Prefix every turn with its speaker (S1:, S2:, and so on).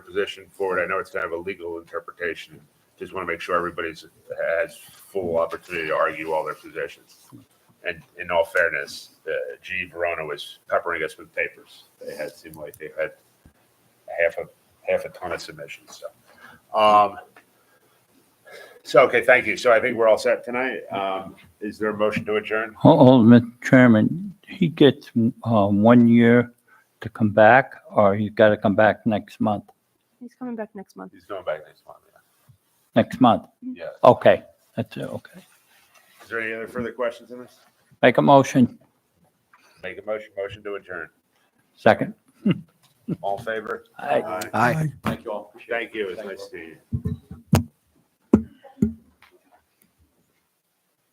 S1: position for it. I know it's kind of a legal interpretation. Just want to make sure everybody's has full opportunity to argue all their positions. And in all fairness, uh, G. Verona was peppering us with papers. They had seemed like they had half a half a ton of submissions. So, um, so okay, thank you. So I think we're all set tonight. Um, is there a motion to adjourn?
S2: Ul- Ultimate Chairman, he gets uh, one year to come back, or he's got to come back next month?
S3: He's coming back next month.
S1: He's going back next month.
S2: Next month?
S1: Yeah. yeah.
S2: Okay, that's it, okay.
S1: Is there any other further questions on this?
S2: Make a motion,
S1: Make a motion. Motion to adjourn.
S2: second.
S1: All in favor?
S2: Aye.
S1: Aye.
S4: Aye.
S1: Thank you all. Thank you. It's nice to see you.